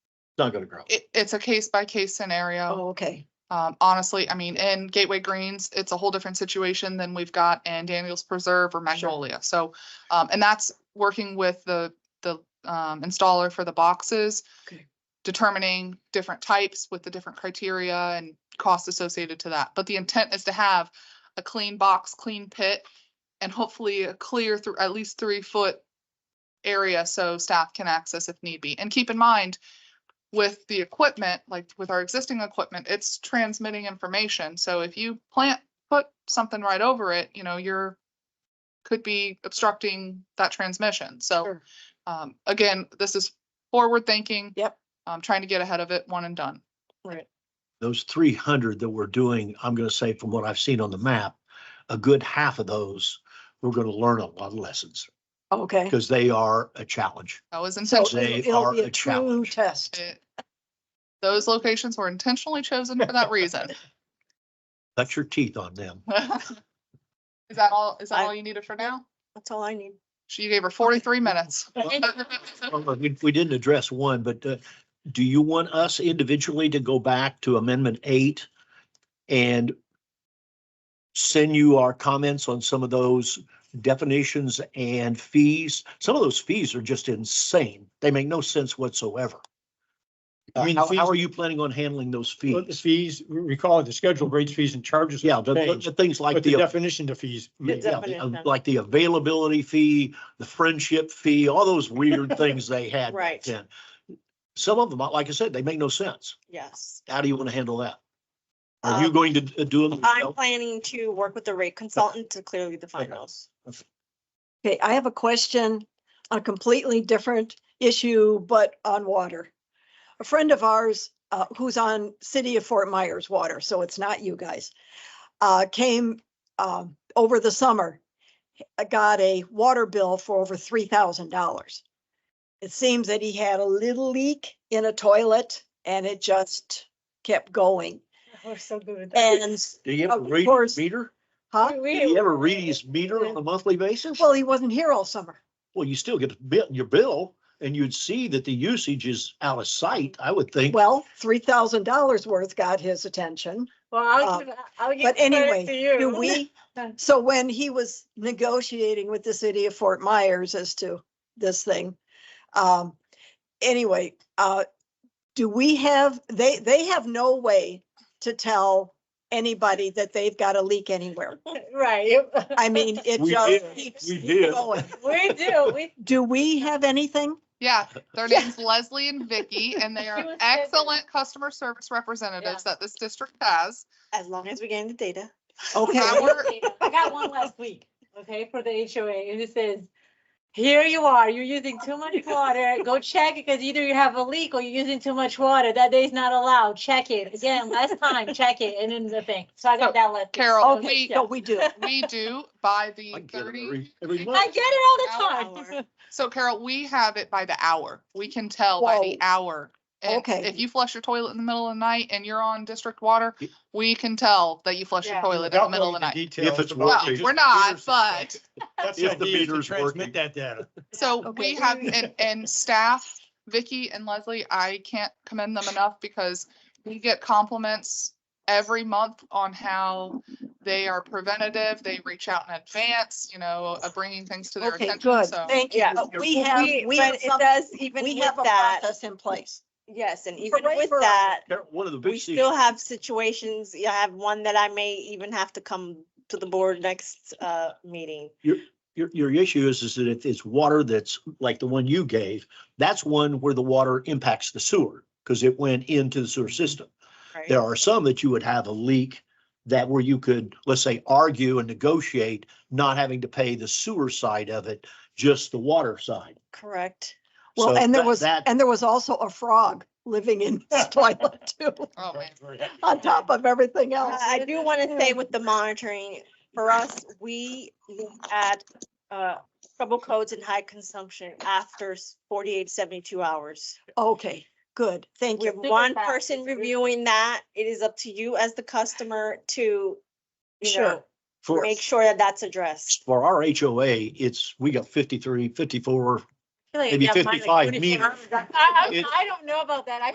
not gonna grow. It, it's a case by case scenario. Oh, okay. Um, honestly, I mean, in Gateway Greens, it's a whole different situation than we've got in Daniels Preserve or Magnolia. So, um, and that's working with the, the, um, installer for the boxes. Okay. Determining different types with the different criteria and costs associated to that. But the intent is to have a clean box, clean pit, and hopefully a clear through, at least three foot area so staff can access if need be. And keep in mind, with the equipment, like with our existing equipment, it's transmitting information. So if you plant, put something right over it, you know, you're could be obstructing that transmission. So Sure. um, again, this is forward thinking. Yep. Um, trying to get ahead of it, one and done. Right. Those three hundred that we're doing, I'm gonna say from what I've seen on the map, a good half of those, we're gonna learn a lot of lessons Oh, Okay. because they are a challenge. That was So intentional. They it'll- it'll are be a a true challenge. test. It- Those locations were intentionally chosen for that reason. Cut your teeth on them. Is that all, is that I- all you needed for now? That's all I need. She gave her forty-three minutes. Well, look, We we didn't address one, but uh, do you want us individually to go back to amendment eight and send you our comments on some of those definitions and fees? Some of those fees are just insane. They make no sense whatsoever. I Uh, mean, How fees- how are you planning on handling those Well, the fees? fees, we- we call it the schedule rates, fees and charges. Yeah, have the- the changed, the things like But the the uh, definition to fees. Yeah, may- yeah, the, uh, Definition. like the availability fee, the friendship fee, all those weird things they had. Right. then. Some of them, like I said, they make no sense. Yes. How do you want to handle that? Are you Um, going to d- do them? I'm yourself? planning to work with the rate consultant to clearly define Okay. those. Okay. Okay, I have a question, a completely different issue, but on water. A friend of ours, uh, who's on City of Fort Myers Water, so it's not you guys, uh, came, um, over the summer. uh, Got a water bill for over three thousand dollars. It seems that he had a little leak in a toilet and it just kept going. We're so good at that. And, Do you ever of read his course. meter? huh? We- Do we- you ever read his meter on a monthly basis? Well, he wasn't here all summer. Well, you still get a bill, your bill, and you'd see that the usage is out of sight, I would think. Well, three thousand dollars worth got his attention. Well, uh, I'll give, I'll give But credit anyway, to you. do we, so when he was negotiating with the city of Fort Myers as to this thing, um, anyway, uh, do we have, they, they have no way to tell anybody that they've got a leak anywhere. Right. I mean, it We just did. keeps We did. going. We do, we. Do we have anything? Yeah, their name's Leslie and Vicky, and they She are was there. excellent customer service representatives that this district has. As long as we gain the data. I Okay, Our- got one last week, okay, for the HOA, and it says, here you are, you're using too much water, go check it, because either you have a leak or you're using too much water, that day's not allowed, check it, again, last time, check it, and then the thing, so I So, got that last. Carol, okay, we, so we do. we do by the I get it thirty. every, every I month. get it all the time. So Carol, we have it by the hour. We can tell by Whoa. the hour. And Okay. If you flush your toilet in the middle of the night and you're on district water, Y- we can tell that you flush your Yeah. toilet in the Without middle of the knowing night. details If it's about Well, working. it, just we're the not, meters- but, That's If the idea is to meter's working. Transmit that data. so Okay. we have, and, and staff, Vicky and Leslie, I can't commend them enough because we get compliments every month on how they are preventative. They reach out in advance, you know, of bringing things to their Okay, attention. good. So Thank you. Yeah. But We have, We- we but have it some- does even we with have a that, process in place. yes, and even Hooray with for us. that, Carol, One of the big. we still have situations, I have one that I may even have to come to the board next uh meeting. Your, your issue is, is that if it's water that's like the one you gave, that's one where the water impacts the sewer because it went into the sewer system. right? There are some that you would have a leak that where you could, let's say, argue and negotiate, not having to pay the sewer side of it, just the water side. Correct. Well, So and there that- was, That, and there was also a frog living in his toilet too, Oh, man. on top of everything Uh, else. I do want to say with the monitoring, for us, we look at uh trouble codes and high consumption after s- 48, 72 hours. Okay, good. Thank We have you. Super one fast. person reviewing that. It is up to you as the customer to, you Sure. know, for, make sure that that's addressed. for our HOA, it's, we got 53, 54. Like, Maybe yeah, mine, like, 55 24 meters. hours. I, I, It- I don't know about that, I